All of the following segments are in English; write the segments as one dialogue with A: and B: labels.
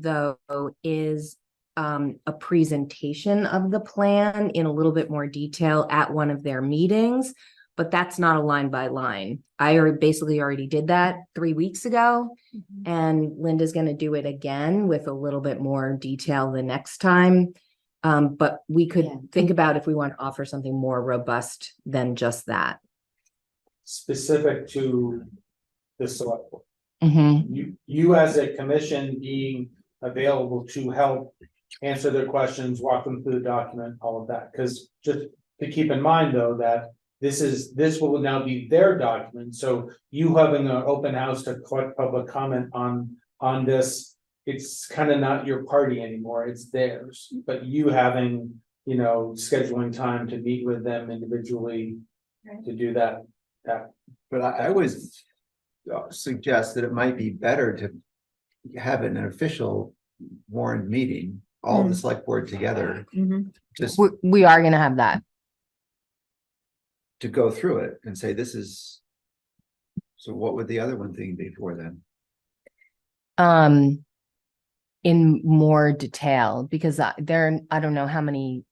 A: though, is um, a presentation of the plan in a little bit more detail at one of their meetings. But that's not a line by line. I already basically already did that three weeks ago. And Linda's gonna do it again with a little bit more detail the next time. Um, but we
B: Yeah.
A: could think about if we want to offer something more robust than just that.
C: specific to the select board.
A: Mm-hmm.
C: You, you as a commission being available to help answer their questions, walk them through the document, all of that, because just to keep in mind, though, that this is, this will now be their document, so you having an open house to collect public comment on, on this, it's kind of not your party anymore, it's theirs, but you having, you know, scheduling time to meet with them individually
B: Right.
C: to do that
D: But I, I was suggest that it might be better to have an official warrant meeting, all the select board together, just
A: We, we are gonna have that.
D: to go through it and say, this is. So what would the other one thing be for then?
A: um in more detail because I- there I don't know how many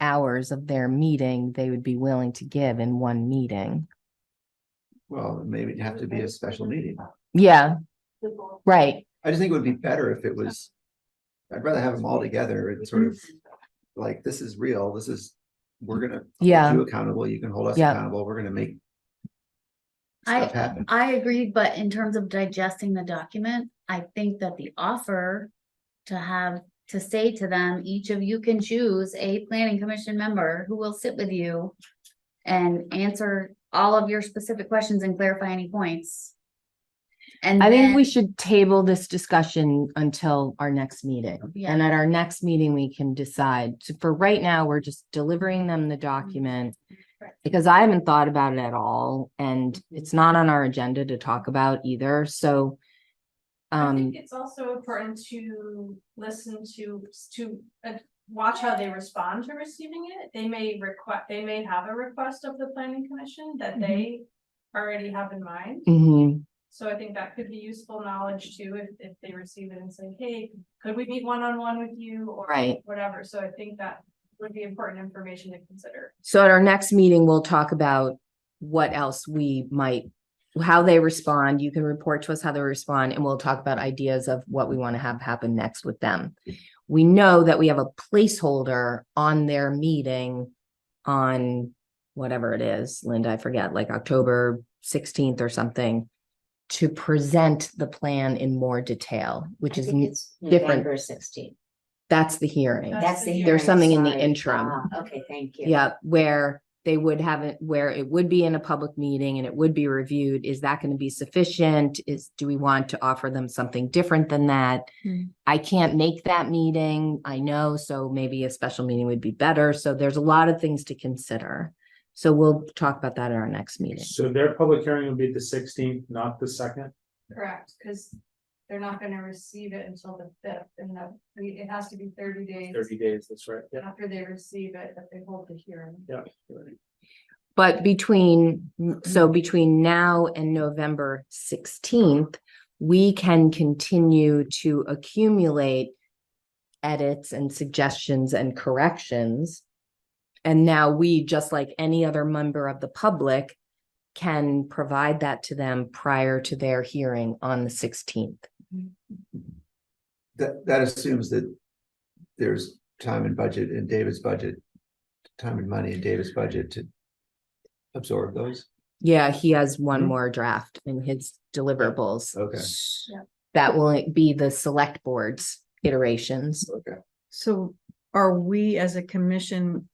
A: hours of their meeting they would be willing to give in one meeting.
D: Well, maybe it'd have to be a special meeting.
A: Yeah,
B: Mm-hmm.
A: right.
D: I just think it would be better if it was. I'd rather have them all together and sort of like, this is real, this is, we're gonna. hold
A: Yeah.
D: You accountable, you can hold us
A: Yeah.
D: accountable, we're gonna make.
B: I-
D: Stuff happen.
B: I agree, but in terms of digesting the document, I think that the offer to have, to say to them, each of you can choose a planning commission member who will sit with you and answer all of your specific questions and clarify any points. And
A: I think
B: then-
A: we should table this discussion until our next meeting.
B: Yeah.
A: And at our next meeting, we can decide. So For right now, we're just delivering them the
E: Mm-hmm.
A: document.
B: Correct.
A: Because I haven't thought about it at all and
E: Mm-hmm.
A: it's not on our agenda to talk about either, so.
E: I
A: Um,
E: think it's also important to listen to, to, uh, watch how they respond to receiving it. They may request, they may have a request of the planning commission
A: Mm-hmm.
E: that they already have in mind.
A: mhm,
E: So I think that could be useful knowledge too, if, if they receive it and say, hey, could we meet one-on-one with you? or
A: Right.
E: Whatever, so I think that would be important information to consider.
A: so at our next meeting, we'll talk about what else we might, how they respond. You can report to us how they respond and we'll talk about ideas of what we want to have happen next with them. We know that we have a placeholder on their meeting on whatever it is, Linda, I forget, like October sixteenth or something to present the plan in more detail, which is,
F: it's
A: different.
F: November sixteenth.
A: that's the hearing.
E: That's
F: That's
E: the
F: the.
A: There's
F: hearing,
A: something in the
F: sorry.
A: interim.
F: Ah, Okay, thank you.
A: Yeah, where they would have it, where it would be in a public meeting and it would be reviewed. Is that going to be sufficient? Is, do we want to offer them something different than that?
B: Mm.
A: I can't make that meeting, I know, so maybe a special meeting would be better. So there's a lot of things to consider. So we'll talk about that at our next meeting.
C: So their public hearing will be the sixteenth, not the second.
E: Correct, because they're not gonna receive it until the fifth, and that, I mean, it has to be thirty days
C: Thirty days, that's right. Yeah.
E: after they receive it, that they hold the hearing.
A: But between, so between now and November sixteenth, we can continue to accumulate edits and suggestions and corrections. And now we, just like any other member of the public, can provide that to them prior to their hearing on the sixteenth.
D: That, that assumes that there's time and budget in David's budget, time and money in David's budget to absorb those.
A: Yeah, he has one
D: Mhm.
A: more draft in his deliverables.
D: Okay.
E: Yeah.
A: That will be the select board's iterations.
D: Okay.
G: So are we as a commission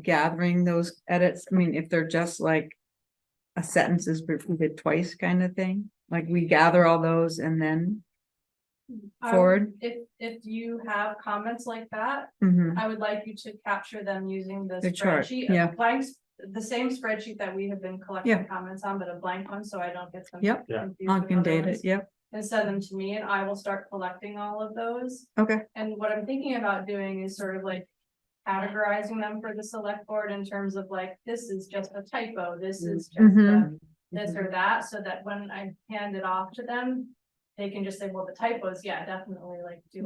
G: gathering those edits? I mean, if they're just like a sentence is repeated twice kind of thing, like we gather all those and then,
E: I would-
G: Forward.
E: Um, If, if you have comments like that,
G: Mhm.
E: I would like you to capture them using the
G: The chart,
E: spreadsheet. a
G: yeah.
E: Blank, s- the same spreadsheet that we have been collecting
G: Yeah.
E: comments on, but a blank one, so I don't get them.
G: Yep.
C: Yeah.
E: confused
G: I
E: with
G: can
E: other
G: date
E: ones,
G: it, yep,
E: And send them to me and I will start collecting all of those.
G: okay,
E: And what I'm thinking about doing is sort of like categorizing them for the select board in terms of like, this is just a typo, this is just a
G: Mhm.
E: this or that, so that when I hand it off to them, they can just say, well, the typos, yeah, definitely like do